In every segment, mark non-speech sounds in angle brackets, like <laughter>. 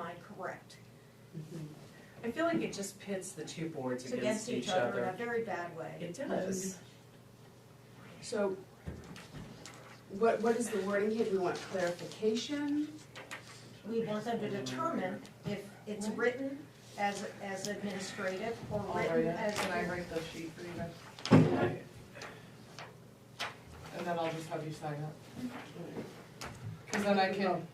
I correct? I feel like it just pits the two boards It's against each other in a very bad way. It does. So what, what is the wording here? Do we want clarification? We want them to determine if it's written as, as administrative or written as. Can I write the sheet for you guys? And then I'll just have you sign it. Cause then I can,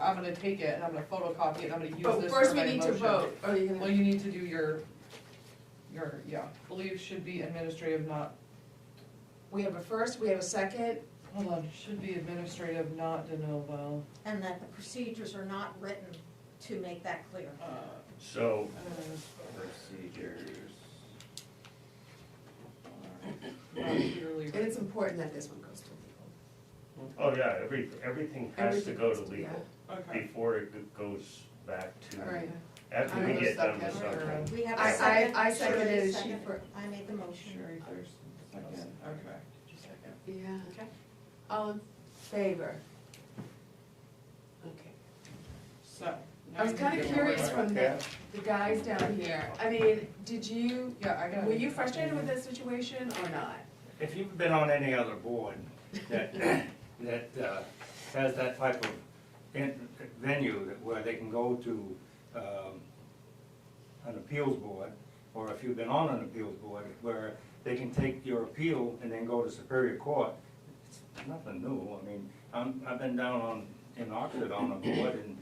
I'm gonna take it and I'm gonna photocopy it and I'm gonna use But this first for we my need to motion. vote. Oh, Are you Well, gonna, you need to do your, your, yeah, believe should be administrative, not, we have a first, we have a second. hold on, should be administrative, not de novo. And that the procedures are not written to make that clear. Uh, So, uh, procedures. not purely- And it's important that this one goes to legal. Oh, yeah, every, everything has to go to legal Okay. before it g- goes back to, All right. after we I'm get gonna done with second. something. We have a I, second. I, I seconded it, she Second. for, I made the motion. Sherry first, second, okay. Second. yeah. Okay. All in favor? Okay. So. I was now you kinda can- curious from the, the guys down here. I mean, did you, Yeah, I got it. were you frustrated with this situation or not? If you've been on any other board that, <coughs> that uh, has that type of in- venue that- where they can go to um, an appeals board, or if you've been on an appeals board where they can take your appeal and then go to Superior Court, it's nothing new. I mean, I'm, I've been down on, in Oxford on a board and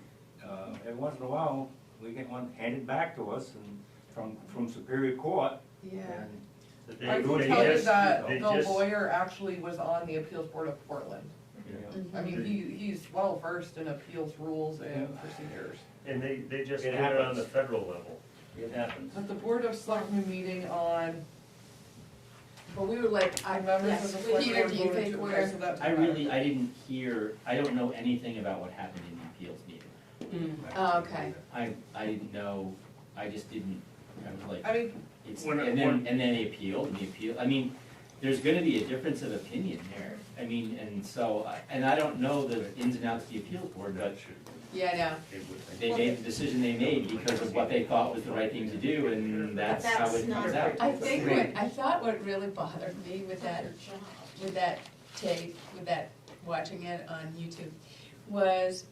uh, every once in a while, we get one handed back to us and from, from Superior Court. Yeah. and They- I can they tell you just- that they the just- lawyer actually was on the appeals board of Portland. Yeah. I mean, Mm-hmm. he, he's well versed in appeals rules and procedures. And they, they just It do it on happens. the federal level. It happens. At the board of selectmen meeting on, But we were like, I, I members of yes, the select Peter, board do you voted think to, we're? okay, so that's. I really, I didn't hear, I don't know anything about what happened in the appeals meeting. Hmm. Oh, okay. I, I didn't know, I just didn't, I was I like, mean, <laughs> it's, When- and when- then, and then they appealed, and the appeal, I mean, there's gonna be a difference of opinion there. I mean, and so, I- and I don't know the ins and outs of the appeals board, but Yeah, It would- they made the decision they made because of what they thought was the right thing to do, and that's how That's it not comes right. out. no. I think what, I thought what really bothered me with that, with that tape, with that, watching it on YouTube, was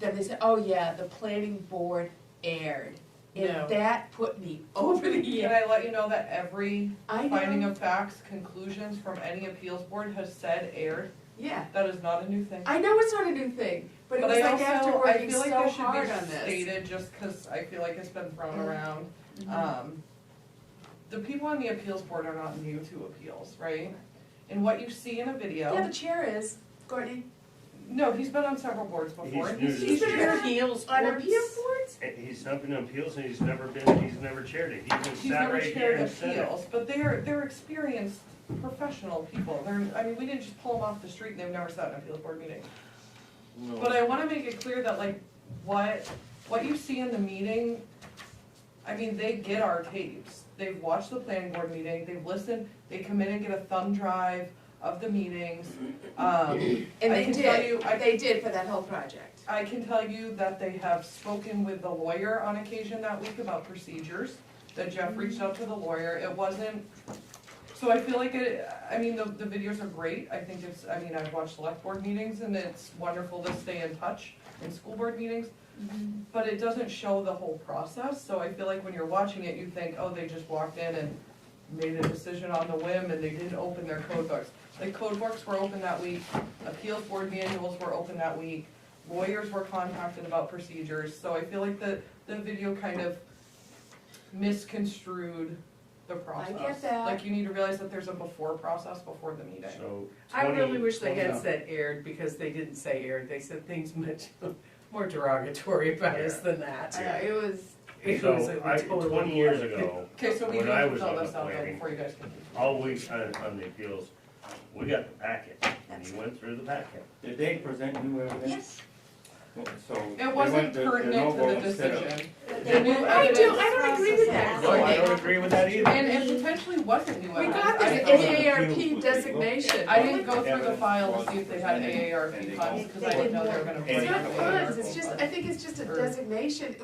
that they said, oh yeah, the planning board aired. No. And that put me <laughs> over the oh, can edge. I let you know that every I finding know, of facts, conclusions from any appeals board has said aired? yeah, That is not a new thing. I know it's not a new thing, but it But was I like after also, I working feel so like that hard should on be this. stated, just cause I feel like it's been thrown Mhm. around. Um, the people on the appeals board are not new to appeals, right? And what you see in a Yeah, video, the chair is, Courtney, no, he's been on several boards before. He's new to he's this been chair. on appeals boards. On appeals And He's not been on appeals and he's never been, he's never chaired it. He just He's sat never right here chaired and said it. appeals, but they're, they're experienced professional people. They're, I mean, we didn't just pull them off the street and they've never sat in an appeals board meeting. No. But I wanna make it clear that like, what, what you see in the meeting, I mean, they get our tapes. They've watched the planning board meeting, they've listened, they come in and get a thumb drive of the meetings. Um, And I they can tell you- did, I- they did for that whole project. I can tell you that they have spoken with the lawyer on occasion that week about procedures, that Jeff reached out to the lawyer, it wasn't, so I feel like it, I mean, the, the videos are great, I think it's, I mean, I've watched select board meetings and it's wonderful to stay in touch in school board meetings, but it doesn't show the whole process, so I feel like when you're watching it, you think, oh, they just walked in and made a decision on the whim and they didn't open their code books. Like code books were open that week, appeals board manuals were open that week, lawyers were contacted about procedures, so I feel like the, the video kind of misconstrued the process. that. Like you need to realize that there's a before process before the meeting. So. I 20 really wish they had Yeah. said aired, because they didn't say aired, they said things much <laughs> more derogatory about us than that. I know, it was, <laughs> It was So a I, total- twenty years ago, Okay, so we need When I to was fill on this the out though planning- before you guys continue. always on, on the appeals, we got the packet and he went through the packet. Did they present new evidence? Yes, So. they It wasn't went to de pertinent to novo the instead of- decision. it They new were- I do- I don't agree with that. No, I don't agree with that either. And it potentially wasn't new We evidence. got I this didn't- AARP designation. I didn't go through the file to see if they had AARP funds, because I didn't know they were gonna. It's break not away. funds, it's just, I think it's just a designation